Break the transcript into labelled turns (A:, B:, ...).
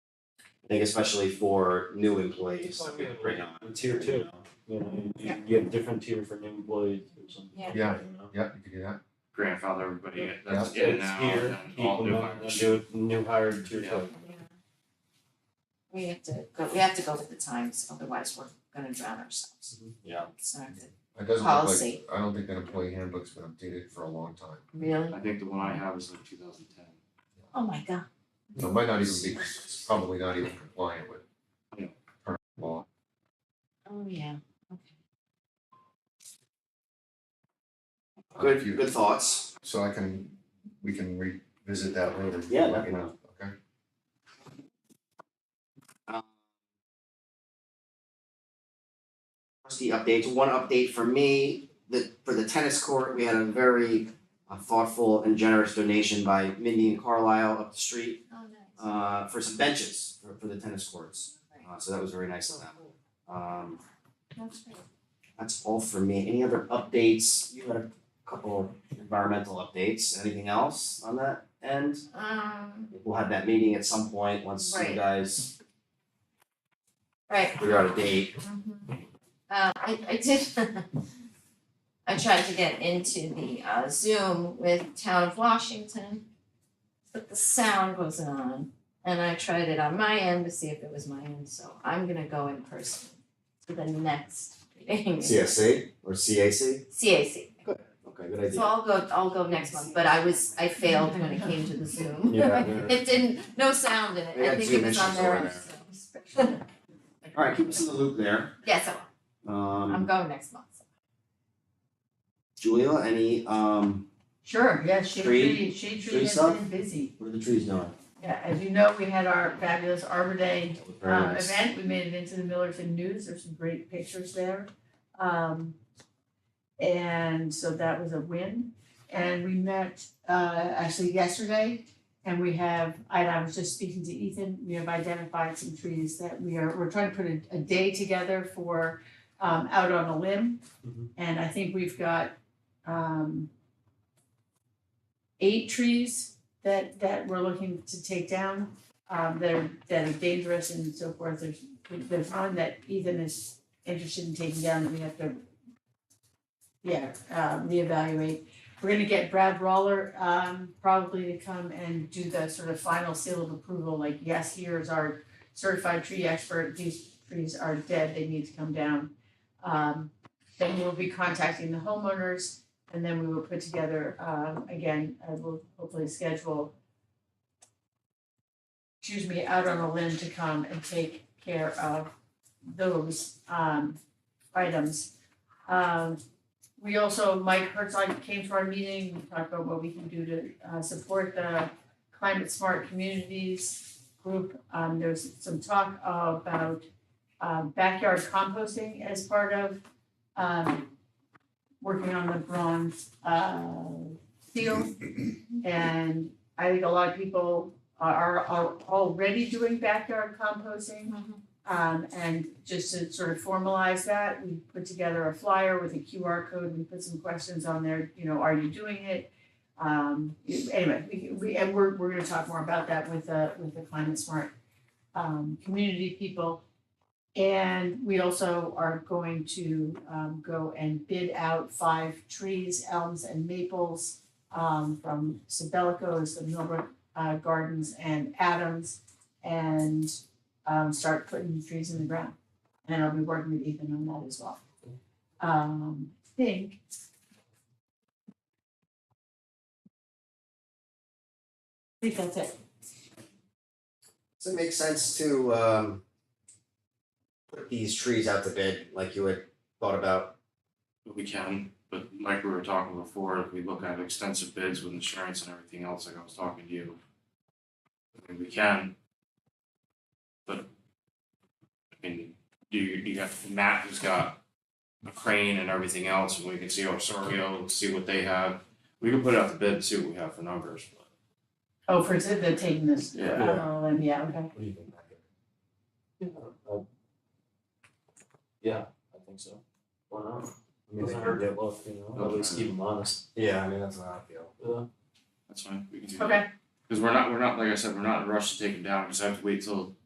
A: I think especially for new employees that we bring on.
B: Tier two, you know, you- you get a different tier for new employees or something.
C: Yeah.
D: Yeah.
B: you know?
D: Yeah, you could do that.
E: grandfather everybody in- that's
B: So
E: in
B: it's
E: now
B: here,
E: and then all
B: people
E: new
B: know,
E: hires.
B: and do it, new hire tier
E: Yeah.
B: two.
C: We have to go, we have to go with the times, otherwise we're gonna drown ourselves.
A: Yeah.
C: It's not good.
D: It doesn't look like,
C: Policy.
D: I don't think that employee handbook's been updated for a long time.
C: Really?
E: I think the one I have is like two thousand ten.
C: Oh my god.
D: So it might not even be, it's probably not even compliant with
E: Yeah.
D: current law.
C: Oh, yeah.
D: If
A: Good,
D: you-
A: good thoughts.
D: So I can, we can revisit that later.
A: Yeah,
D: Let me know, okay?
A: The updates, one update for me, the, for the tennis court, we had a very uh, thoughtful and generous donation by Mindy and Carlisle up the street
C: Oh, nice.
A: uh, for some benches for, for the tennis courts. Uh, so that was very nice of them. Um,
C: That's great.
A: that's all for me. Any other updates? You had a couple environmental updates. Anything else on that end?
C: Um,
A: We'll have that meeting at some point once you
C: Right.
A: guys
C: right,
A: figure out a date.
C: Mhm. Uh, I, I did, I tried to get into the uh, Zoom with Town of Washington, but the sound wasn't on, and I tried it on my end to see if it was my end, so I'm gonna go in person to the next meeting.
A: CSC or CAC?
C: CAC,
A: Okay, good
C: so
A: idea.
C: I'll go, I'll go next month, but I was, I failed when it came to the Zoom.
B: Yeah, yeah.
C: It didn't, no sound in
A: They
C: it, I
A: got
C: think
A: Zoom
C: it was on
A: issues
C: their
A: over
C: end,
A: there.
C: so.
A: All right, keep us in the loop there.
C: Yes, I will. I'm
A: Um,
C: going next month, so.
A: Julia, any, um,
F: Sure, yes, Shade
A: Tree-
F: Tree, Shade Tree has
A: stuff?
F: been busy.
A: what are the trees doing?
F: Yeah, as you know, we had our fabulous Arbor Day
A: That was very
C: uh,
F: um
A: nice.
F: event, we made it into the Millerton News, there's some great pictures there. Um and so that was a win. And we met uh actually yesterday and we have, I I was just speaking to Ethan, we have identified some trees that we are, we're trying to put a a day together for um out on a limb.
B: Mhm.
F: And I think we've got um eight trees that that we're looking to take down um, that are, that are dangerous and so forth, there's, there's one that Ethan is interested in taking down, that we have to, yeah, um, reevaluate. We're gonna get Brad Roller, um, probably to come and do the sort of final seal of approval, like, yes, here's our certified tree expert, these trees are dead, they need to come down. Um, then we'll be contacting the homeowners, and then we will put together, um, again, I will hopefully schedule excuse me, out on a limb to come and take care of those um items. Um, we also, Mike Herzog came to our meeting, we talked about what we can do to uh support the climate smart communities group. Um, there's some talk about um backyard composting as part of um working on the bronze uh seal. And I think a lot of people are are already doing backyard composting.
C: Mhm.
F: Um and just to sort of formalize that, we put together a flyer with a QR code, we put some questions on there, you know, are you doing it? Um anyway, we we and we're we're gonna talk more about that with the with the climate smart um community people. And we also are going to um go and bid out five trees, elms and maples um from Sibelico's, the Millbrook uh Gardens and Adams and um start putting trees in the ground. And I'll be working with Ethan on that as well. Um, I think. I think that's it.
A: Does it make sense to, um, put these trees out to bid like you had thought about?
E: But we can, but like we were talking before, if we look at extensive bids with insurance and everything else, like I was talking to you. I mean, we can. But. I mean, do you, you got Matt who's got a crane and everything else, and we can see Osorio, see what they have. We can put out the bid, see what we have for numbers, but.
F: Oh, for example, they're taking this,
E: Yeah.
F: oh, and yeah, okay.
B: What do you think, Patrick? Yeah. uh, Yeah, I think so. Why not? I mean, they
E: Okay.
B: heard that look, you know, at least keep them honest.
A: Yeah, I mean, that's what I feel.
B: Yeah.
E: That's fine, we can do that.
F: Okay,
E: Cause we're not, we're not, like I said, we're not in a rush to take them down, because I have to wait till